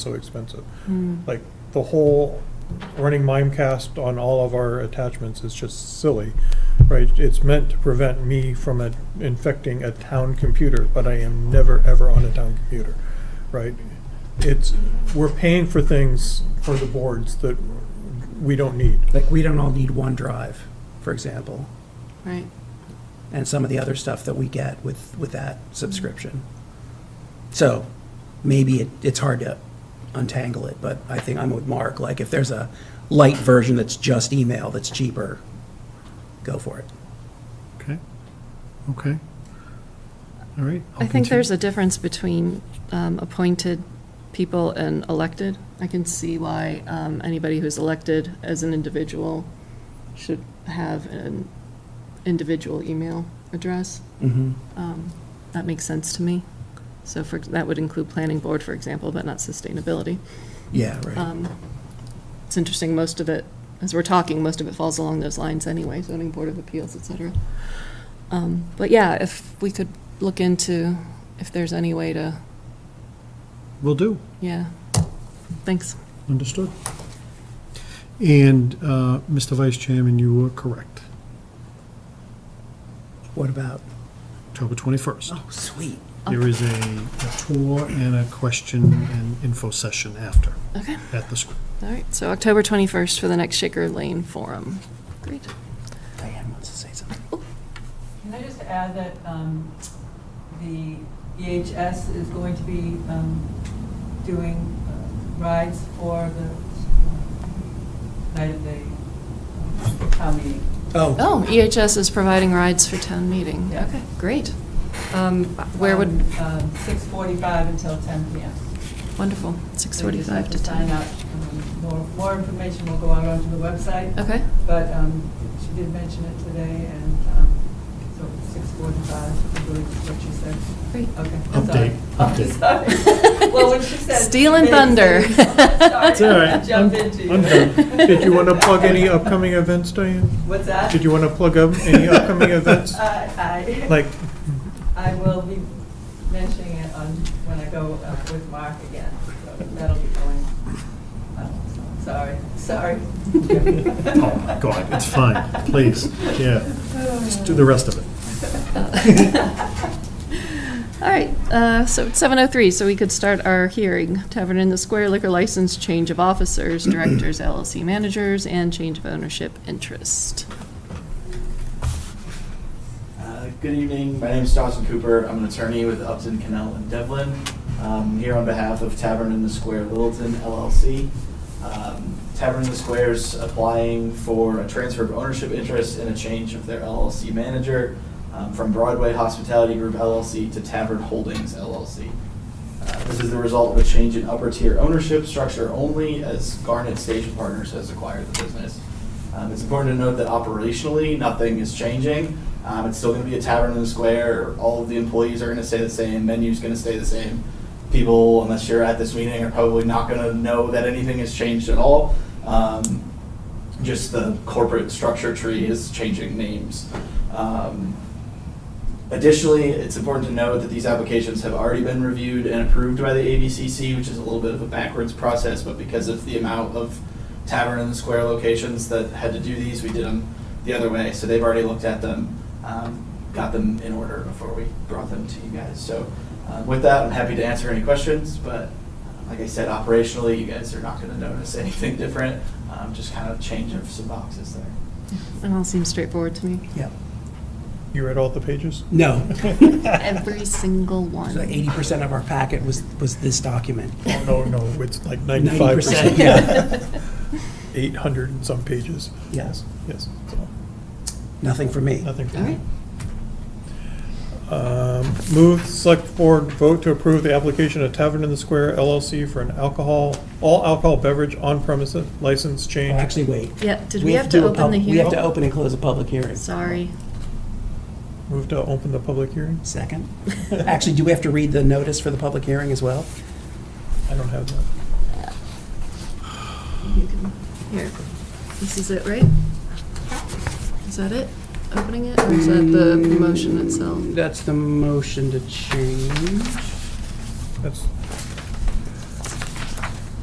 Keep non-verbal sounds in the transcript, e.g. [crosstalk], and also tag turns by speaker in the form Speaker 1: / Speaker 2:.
Speaker 1: so expensive. Like, the whole running Mimecast on all of our attachments is just silly, right? It's meant to prevent me from uh, infecting a town computer, but I am never, ever on a town computer, right? It's, we're paying for things for the boards that we don't need.
Speaker 2: Like, we don't all need OneDrive, for example,
Speaker 3: Right.
Speaker 2: and some of the other stuff that we get with, with that subscription. So maybe it, it's hard to untangle it, but I think I'm with Mark. Like, if there's a light version that's just email that's cheaper, go for it.
Speaker 4: Okay, okay. All right. I'll
Speaker 3: I think
Speaker 4: continue.
Speaker 3: there's a difference between um, appointed people and elected. I can see why um, anybody who's elected as an individual should have an individual email address.
Speaker 2: Mm-hmm.
Speaker 3: That makes sense to me. So for, that would include planning board, for example, but not sustainability.
Speaker 2: Yeah, right.
Speaker 3: It's interesting, most of it, as we're talking, most of it falls along those lines anyway, zoning board of appeals, et cetera. Um, But yeah, if we could look into if there's any way to
Speaker 4: Will do,
Speaker 3: Yeah, thanks.
Speaker 4: understood. And, uh, Mr. Vice Chairman, you were correct,
Speaker 2: what about?
Speaker 4: October 21st.
Speaker 2: Oh, sweet.
Speaker 4: There is a a tour and a question and info session after,
Speaker 3: Okay,
Speaker 4: at the school.
Speaker 3: all right, so October 21st for the next Shaker Lane Forum. Great.
Speaker 2: Diane wants to say something.
Speaker 5: Can I just add that um, the EHS is going to be um, doing uh, rides for the night of the town meeting?
Speaker 2: Oh,
Speaker 3: Oh, EHS is providing rides for town meeting.
Speaker 5: Yeah.
Speaker 3: Okay, great. Um, Where would,
Speaker 5: Um, um, 6:45 until 10 PM.
Speaker 3: wonderful, 6:45 to
Speaker 5: Sign
Speaker 3: 10.
Speaker 5: up. Um, More, more information will go out onto the website.
Speaker 3: Okay,
Speaker 5: But um, she did mention it today, and um, so 6:45, I believe is what she said.
Speaker 3: great.
Speaker 5: Okay, I'm
Speaker 4: Update,
Speaker 5: sorry.
Speaker 4: update.
Speaker 5: I'm
Speaker 3: [laughs]
Speaker 5: sorry. Well, when she said.
Speaker 3: Stealing
Speaker 5: mid-season,
Speaker 3: thunder.
Speaker 4: [laughs]
Speaker 5: I'm
Speaker 3: It's all
Speaker 5: Sorry, I
Speaker 4: right.
Speaker 5: jumped into you.
Speaker 4: I'm done.
Speaker 1: Did you want to plug any upcoming events, Diane?
Speaker 5: What's that?
Speaker 1: Did you want to plug up any upcoming events?
Speaker 5: Uh, I, I,
Speaker 1: Like,
Speaker 5: [laughs] I will be mentioning it on, when I go uh, with Mark again, so that'll be going. I'm Sorry, sorry.
Speaker 4: [laughs] Oh, my God, it's fine,
Speaker 5: [laughs]
Speaker 4: please, yeah. Just do the rest of it.
Speaker 3: All right, uh, so it's 7:03, so we could start our hearing. Tavern in the Square liquor license, change of officers, directors, LLC managers, and change of ownership interest.
Speaker 6: Uh, Good evening. My name is Dawson Cooper. I'm an attorney with Upton, Cannell, and Devlin. Um, Here on behalf of Tavern in the Square Littleton LLC. Um, Tavern in the Square is applying for a transfer of ownership interest and a change of their LLC manager um, from Broadway Hospitality Group LLC to Tavern Holdings LLC. Uh, This is the result of a change in upper tier ownership structure only as Garnet Station Partners has acquired the business. Um, It's important to note that operationally, nothing is changing. Um, It's still going to be a tavern in the square. All of the employees are going to stay the same. Menu's going to stay the same. People, unless you're at this meeting, are probably not going to know that anything has changed at all. Um, Just the corporate structure tree is changing names. Um, Additionally, it's important to note that these applications have already been reviewed and approved by the ABCC, which is a little bit of a backwards process, but because of the amount of tavern and square locations that had to do these, we did them the other way. So they've already looked at them, um, got them in order before we brought them to you guys. So uh, with that, I'm happy to answer any questions, but uh, like I said, operationally, you guys are not going to notice anything [laughs] different, um, just kind of change of some boxes there.
Speaker 3: It all seems straightforward to me.
Speaker 2: yeah.
Speaker 1: you read all the pages?
Speaker 2: No.
Speaker 3: Every single one.
Speaker 2: So 80% of our packet was, was this document.
Speaker 1: Oh, no, no, it's like ninety-five percent.
Speaker 2: 90%, yeah.
Speaker 1: Eight hundred and some pages.
Speaker 2: Yes.
Speaker 1: Yes, so,
Speaker 2: Nothing for me.
Speaker 1: nothing for
Speaker 3: All
Speaker 1: me.
Speaker 3: right,
Speaker 1: Um, Move, select board vote to approve the application of Tavern in the Square LLC for an alcohol, all alcohol beverage on premises license
Speaker 2: Well,
Speaker 1: change.
Speaker 2: Actually, wait.
Speaker 3: yeah, did
Speaker 2: We
Speaker 3: we have
Speaker 2: do
Speaker 3: to
Speaker 2: a
Speaker 3: open
Speaker 2: pub-
Speaker 3: the
Speaker 2: We have to
Speaker 3: hearing?
Speaker 2: open and close a public hearing.
Speaker 3: Sorry.
Speaker 1: Move to open the public hearing?
Speaker 2: Second. [laughs] Actually, do we have to read the notice for the public hearing as well?
Speaker 1: I don't have that.
Speaker 3: You can- Here, this is it, right? Is that it? Opening it, or is that the motion itself?
Speaker 2: That's the motion to change.
Speaker 1: That's